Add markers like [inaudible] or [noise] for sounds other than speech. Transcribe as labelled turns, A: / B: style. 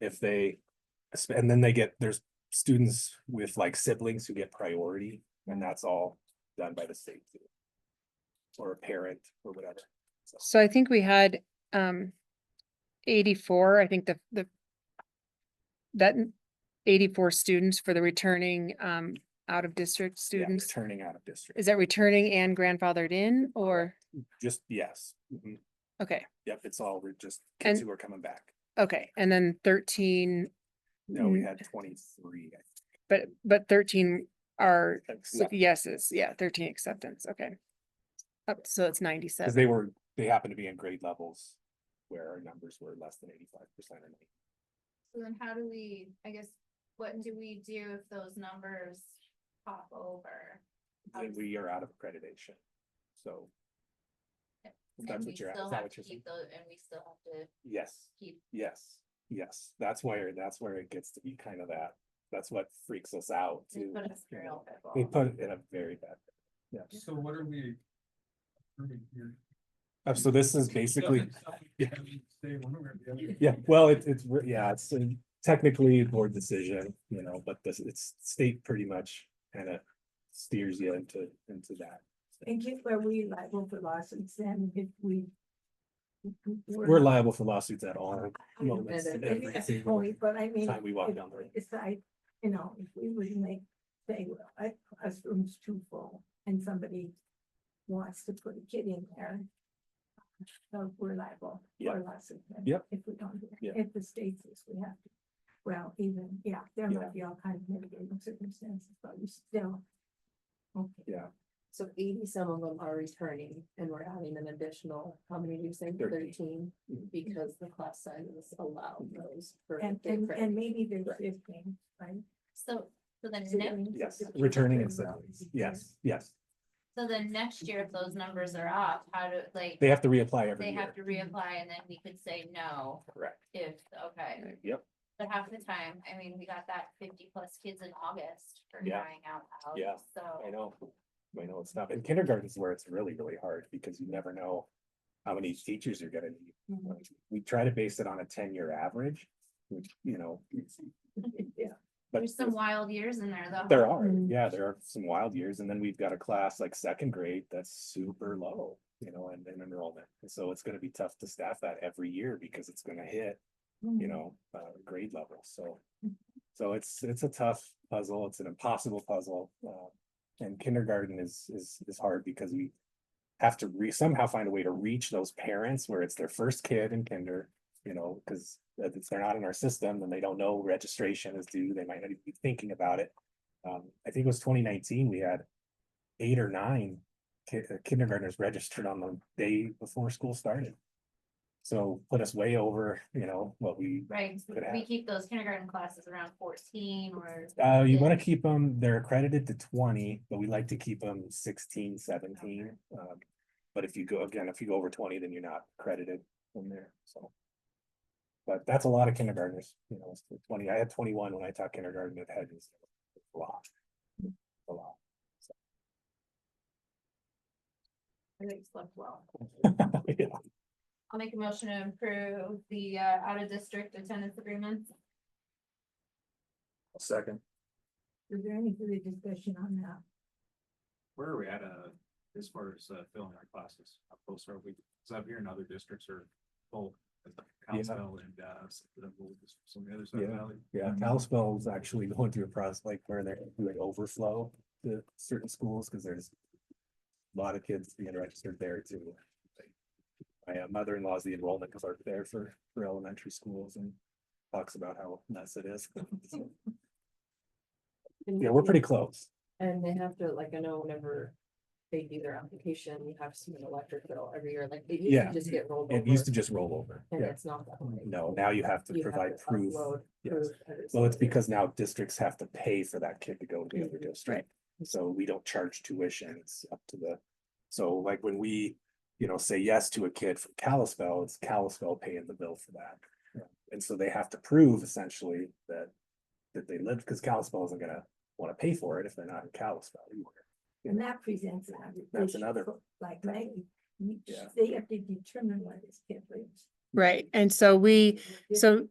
A: if they, and then they get, there's students with like siblings who get priority, and that's all done by the state. too. Or a parent or whatever.
B: So I think we had, um, eighty-four, I think the, the that n- eighty-four students for the returning, um, out-of-district
A: Yeah,
B: students.
A: Turning out of district.
B: Is that returning and grandfathered in or,
A: Just, yes. Mhm.
B: okay,
A: Yep, it's all, we're just kids
B: And-
A: who are coming back.
B: okay, and then thirteen,
A: No, we
B: Mm.
A: had twenty-three. I
B: but, but thirteen are
A: think,
B: so-
A: left,
B: yeses, yeah, thirteen acceptance, okay. Up, so it's
A: Cause
B: ninety-seven,
A: they were, they happened to be in grade levels where our numbers were less than eighty-five percent.
C: So then how do we, I guess, what do we do if those numbers pop over? How
A: Then
C: does-
A: we are out of accreditation. So.
C: Yep.
A: if
C: And
A: That's
C: we
A: what you're, at-
C: still
A: is that
C: have
A: what
C: to
A: you're saying?
C: keep those, and we still have to
A: Yes.
C: keep,
A: Yes, yes, that's where, that's where it gets to be kind of that, that's what freaks us out
C: they
A: too.
C: put us
A: you
C: through
A: know.
C: all that.
A: They put it in a very bad. Yeah,
D: So what are we? approving here?
A: Uh, so this is basically,
D: Doesn't sound like we can Say one way or the other.
A: yeah, well, it's, it's, re- yeah, it's uh, technically a board decision, you know, but this, it's state pretty much kind of steers you into, into that.
E: And get where we liable for lawsuits and if we.
A: We're liable for lawsuits at all
E: I know
A: moments,
E: that,
A: every
E: maybe that's the
A: single
E: point, But I mean.
A: time we walk
E: if-
A: down the road.
E: It's like, you know, if we would make, say, well, a classroom's too full and somebody wants to put a kid in there. So we're liable
A: Yeah.
E: for lawsuits. and
A: Yep.
E: If we don't, do that.
A: Yeah.
E: if the state says we have to. Well, even, yeah, there
A: Yeah.
E: might be all kinds of mitigating circumstances, but we still. Okay.
A: Yeah.
E: So eighty some of them are returning and we're adding an additional, how many do you say,
A: Thirteen.
E: Because the class sizes allow those. Mm-hmm. And,
F: the
E: and,
F: credit.
E: and maybe there's
F: Right.
E: fifteen, right?
C: So, so then
E: So that
C: next,
E: means
A: Yes,
E: it's-
A: returning and salaries, yes, yes,
C: so then next year, if those numbers are off, how do, like,
A: they have to reapply every
C: they have
A: year,
C: to reapply and then we could say no
A: correct,
C: if, okay.
A: yep,
C: But half the time, I mean, we got that fifty plus kids in August for
A: Yeah.
C: crying out loud.
A: Yeah. I
C: So,
A: know, I know it's tough, and kindergarten is where it's really, really hard, because you never know how many teachers you're gonna need.
C: Mm-hmm.
E: Mhm.
A: Like, We try to base it on a ten-year average, which, you know, it's-
E: Yeah,
A: but
C: there's some wild Mm-hmm. years in there though.
A: there are,
E: Mm.
A: yeah, there are some wild years, and then we've got a class like second grade that's super low, you know, and in enrollment. And so it's gonna be tough to staff that every year, because it's gonna hit
E: Mm.
A: you know, uh, grade level, so. So it's, it's a tough puzzle, it's an impossible puzzle, uh, and kindergarten is, is, is hard because we. Have to re, somehow find a way to reach those parents where it's their first kid in kinder, you know, cause if it's- they're not in our system, then they don't know registration is due, they might not even be thinking about it. Um, I think it was twenty nineteen, we had eight or nine ki- uh, kindergartners registered on the day before school started. So put us way over, you know, what we
C: Right, so
A: Could
C: we
A: happen.
C: keep those kindergarten classes around fourteen or,
A: Uh, you wanna
C: Yeah.
A: keep them, they're accredited to twenty, but we like to keep them 16, 17. Um, but if you go, again, if you go over twenty, then you're not credited from there, so. But that's a lot of kindergartners, you know, it's twenty, I had twenty-one when I taught kindergarten at Hedges. A lot. A lot. [laughs]
E: and they slept well.
A: Yeah.
C: I'll make a motion to improve the uh out of district attendance agreements.
D: Second.
E: Is there any further discussion on that?
D: Where are we at, uh, as far as uh, filling our classes? How close are we? Cause up here in other districts are full. as the Council and, uh, s- the whole district, some of the other side of the
A: Yeah.
D: valley. Mm-hmm.
A: Yeah, Kalispell is actually [laughs] going through a process like where they're doing overflow to certain schools, because there's. a Lot of kids being registered there too. My uh, mother-in-law's the enrollment clerk there for, for elementary schools and talks about how nuts it is. [laughs] So, Yeah, we're pretty close.
F: And they have to, like, I know whenever they do their application, you have to submit electric bill every year, like, they used
A: Yeah.
F: to just get rolled over.
A: It used to just roll over.
F: And
A: Yeah,
F: it's not that way.
A: no, now you have to
F: You have
A: provide
F: to
A: proof.
F: upload
A: Yes.
F: proof that
A: Well, it's
F: on there.
A: because now districts have to pay for that kid to go to the other
F: Mhm.
A: district. So we don't charge tuition, it's up to the, so like when we, you know, say yes to a kid from Kalispell, it's Kalispell paying the bill for that. And so they have to prove essentially that, that they lived, because Kalispell isn't gonna wanna pay for it if they're not in Kalispell.
E: And that presents another.
A: That's
E: issue,
A: another-
E: but Like Maggie, you-
A: Yeah.
E: they have to determine what is.
B: right, and so we, so